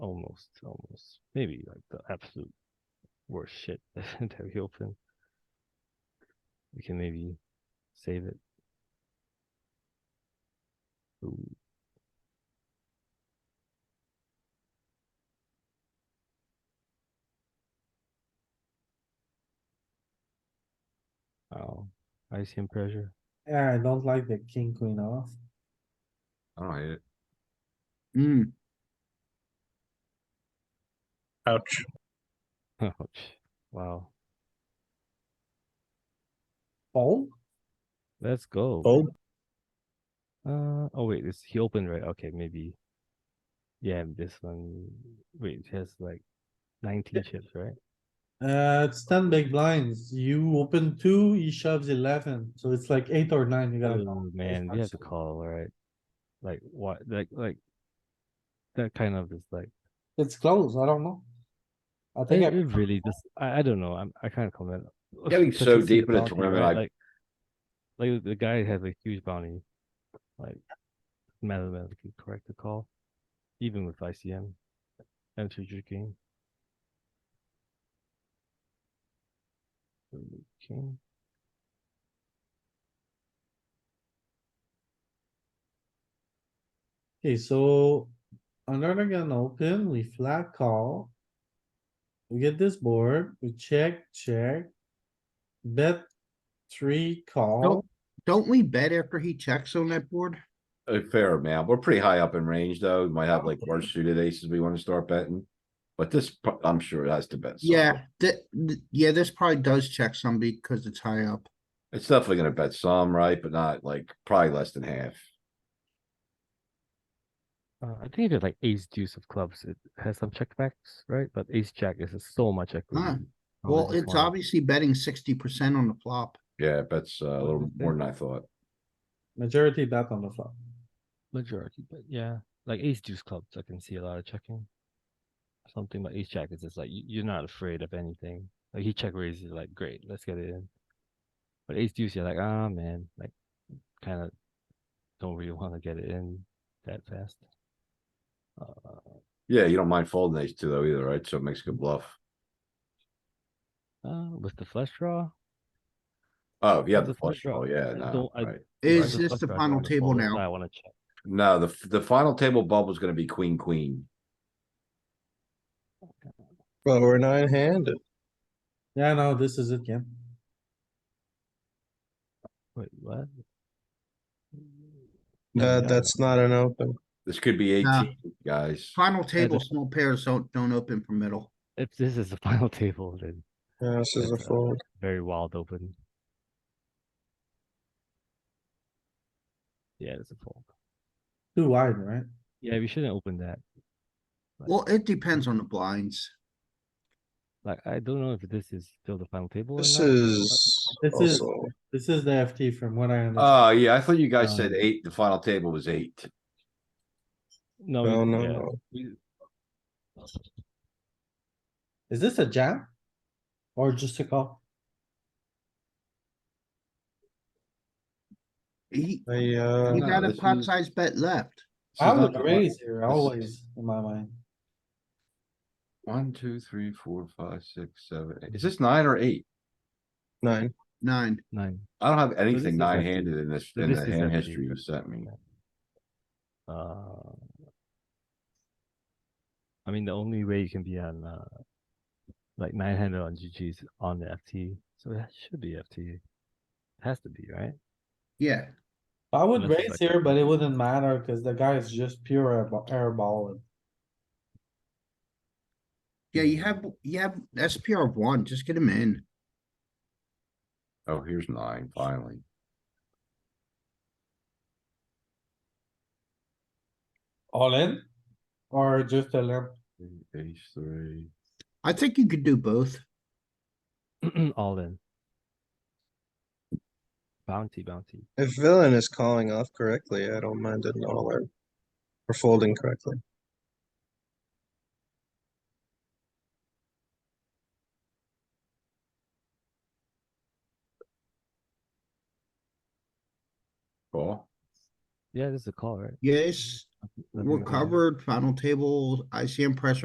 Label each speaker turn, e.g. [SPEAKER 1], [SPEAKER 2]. [SPEAKER 1] almost, almost, maybe like the absolute worst shit that we open. We can maybe save it. Ooh. Oh, ICM pressure.
[SPEAKER 2] Yeah, I don't like the king, queen off.
[SPEAKER 3] I don't hate it.
[SPEAKER 4] Hmm,
[SPEAKER 5] Ouch.
[SPEAKER 1] Ouch. Wow.
[SPEAKER 2] Fold?
[SPEAKER 1] Let's go.
[SPEAKER 2] Oh,
[SPEAKER 5] Fold.
[SPEAKER 1] Uh oh wait, it's he opened right? Okay, maybe. Yeah, this one. Wait, it has like nineteen chips, right?
[SPEAKER 2] Uh, it's ten big blinds. You open two, he shoves eleven, so it's like eight or nine, you gotta
[SPEAKER 1] Oh man, we have to call, right? Like what? Like like that kind of is like
[SPEAKER 2] It's close, I don't know. I
[SPEAKER 1] it,
[SPEAKER 2] think,
[SPEAKER 1] it
[SPEAKER 2] I-
[SPEAKER 1] really just I, I don't know. I'm I can't comment.
[SPEAKER 3] Getting
[SPEAKER 1] But
[SPEAKER 3] so
[SPEAKER 1] this is
[SPEAKER 3] deep in a
[SPEAKER 1] bounty,
[SPEAKER 3] tournament,
[SPEAKER 1] right?
[SPEAKER 3] I-
[SPEAKER 1] like like the guy has a huge bounty, like mathematically correct the call, even with ICM and future king. King.
[SPEAKER 2] okay, so under the gun open, we flat call. We get this board, we check, check. Bet three call.
[SPEAKER 4] don't we bet after he checks on that board?
[SPEAKER 3] A uh, fair amount. We're pretty high up in range, though. We might have like worse suited aces we wanna start betting. But this, pro- I'm sure it has to bet. some.
[SPEAKER 4] Yeah, that, th- yeah, this probably does check some because it's high up.
[SPEAKER 3] It's definitely gonna bet some, right? But not like, probably less than half.
[SPEAKER 1] Uh, I think it's like ace deuce of clubs. It has some checkbacks, right? But ace jack is so much equity.
[SPEAKER 4] Ah,
[SPEAKER 1] on
[SPEAKER 4] Well,
[SPEAKER 1] this
[SPEAKER 4] it's
[SPEAKER 1] one.
[SPEAKER 4] obviously betting sixty percent on the flop.
[SPEAKER 3] Yeah, it bets uh, a little more than I thought.
[SPEAKER 2] Majority bet on the flop.
[SPEAKER 1] Majority, but yeah, like ace deuce clubs, I can see a lot of checking. Something like ace jack is just like you, you're not afraid of anything. Like he check raises, you're like great, let's get it in. But ace deuce, you're like ah man, like kind of don't really want to get it in that fast. Uh,
[SPEAKER 3] Yeah, you don't mind folding ace two though either, right? So it makes a good bluff.
[SPEAKER 1] uh, with the flush draw,
[SPEAKER 3] Oh, yeah,
[SPEAKER 1] That's
[SPEAKER 3] the
[SPEAKER 1] a flush
[SPEAKER 3] flush draw,
[SPEAKER 1] draw.
[SPEAKER 3] yeah,
[SPEAKER 1] I
[SPEAKER 3] no,
[SPEAKER 1] don't- I-
[SPEAKER 3] right.
[SPEAKER 4] Is
[SPEAKER 1] with
[SPEAKER 4] this
[SPEAKER 1] flush
[SPEAKER 4] the
[SPEAKER 1] draw, I
[SPEAKER 4] final
[SPEAKER 1] wanna
[SPEAKER 4] table
[SPEAKER 1] fold it,
[SPEAKER 4] now?
[SPEAKER 1] I want to check.
[SPEAKER 3] No, the, f- the final table bubble's gonna be queen, queen.
[SPEAKER 5] Well, we're nine handed.
[SPEAKER 2] Yeah, no, this is it, Ken.
[SPEAKER 1] Wait, what?
[SPEAKER 5] That, that's not an open.
[SPEAKER 3] This could be
[SPEAKER 4] Nah.
[SPEAKER 3] eighteen, guys.
[SPEAKER 4] Final table,
[SPEAKER 1] just-
[SPEAKER 4] small pairs don't, don't open for middle.
[SPEAKER 1] If this is the final table, then
[SPEAKER 5] Yeah, This is a
[SPEAKER 1] that's, uh,
[SPEAKER 5] fold.
[SPEAKER 1] very wild open. Yeah, it's a fold.
[SPEAKER 2] Too wide, right?
[SPEAKER 1] Yeah, we shouldn't open that.
[SPEAKER 4] Well, it depends on the blinds.
[SPEAKER 1] Like, I don't know if this is still the final table. or
[SPEAKER 5] This
[SPEAKER 1] not, but-
[SPEAKER 5] is
[SPEAKER 2] This is-
[SPEAKER 5] also,
[SPEAKER 2] This is the FT from what I understand.
[SPEAKER 3] Oh, yeah, I thought you guys said
[SPEAKER 1] Um,
[SPEAKER 3] eight, the final table was eight.
[SPEAKER 1] No,
[SPEAKER 2] Oh,
[SPEAKER 5] no,
[SPEAKER 1] we-
[SPEAKER 5] no,
[SPEAKER 1] yeah,
[SPEAKER 5] no.
[SPEAKER 1] we-
[SPEAKER 2] Is this a jam? Or just a call?
[SPEAKER 4] He,
[SPEAKER 5] I,
[SPEAKER 4] he
[SPEAKER 5] uh,
[SPEAKER 3] no,
[SPEAKER 4] got a
[SPEAKER 3] this
[SPEAKER 4] pot
[SPEAKER 3] is-
[SPEAKER 4] size bet left.
[SPEAKER 3] This
[SPEAKER 2] I
[SPEAKER 3] is
[SPEAKER 2] would
[SPEAKER 3] not the one-
[SPEAKER 2] raise here always in my mind.
[SPEAKER 3] One, two, three, four, five, six, seven. eight. Is this nine or eight?
[SPEAKER 5] nine.
[SPEAKER 4] Nine.
[SPEAKER 1] nine.
[SPEAKER 3] I don't have
[SPEAKER 1] this is
[SPEAKER 3] anything
[SPEAKER 1] empty.
[SPEAKER 3] nine handed in this,
[SPEAKER 1] So
[SPEAKER 3] in
[SPEAKER 1] this
[SPEAKER 3] the
[SPEAKER 1] is
[SPEAKER 3] hand
[SPEAKER 1] empty.
[SPEAKER 3] history you sent me.
[SPEAKER 1] Uh, I mean, the only way you can be on, uh, like nine handed on GG is on the FT, so that should be FT. Has to be, right?
[SPEAKER 4] Yeah,
[SPEAKER 2] I would
[SPEAKER 1] Unless it's
[SPEAKER 2] raise
[SPEAKER 1] like-
[SPEAKER 2] here, but it wouldn't matter cuz the guy is just pure airball- airballing.
[SPEAKER 4] yeah, you have, you have SPR one, just get him in.
[SPEAKER 3] Oh, here's nine, finally.
[SPEAKER 2] All in? Or just a limp?
[SPEAKER 3] Ace three.
[SPEAKER 4] I think you could do both.
[SPEAKER 1] All in. Bounty, bounty.
[SPEAKER 5] If villain is calling off correctly, I don't mind it at all, or, or folding correctly.
[SPEAKER 3] Call.
[SPEAKER 1] Yeah, this is a call, right?
[SPEAKER 4] Yes,
[SPEAKER 1] Nothing
[SPEAKER 4] we're
[SPEAKER 1] to do.
[SPEAKER 4] covered, final table, ICM pressure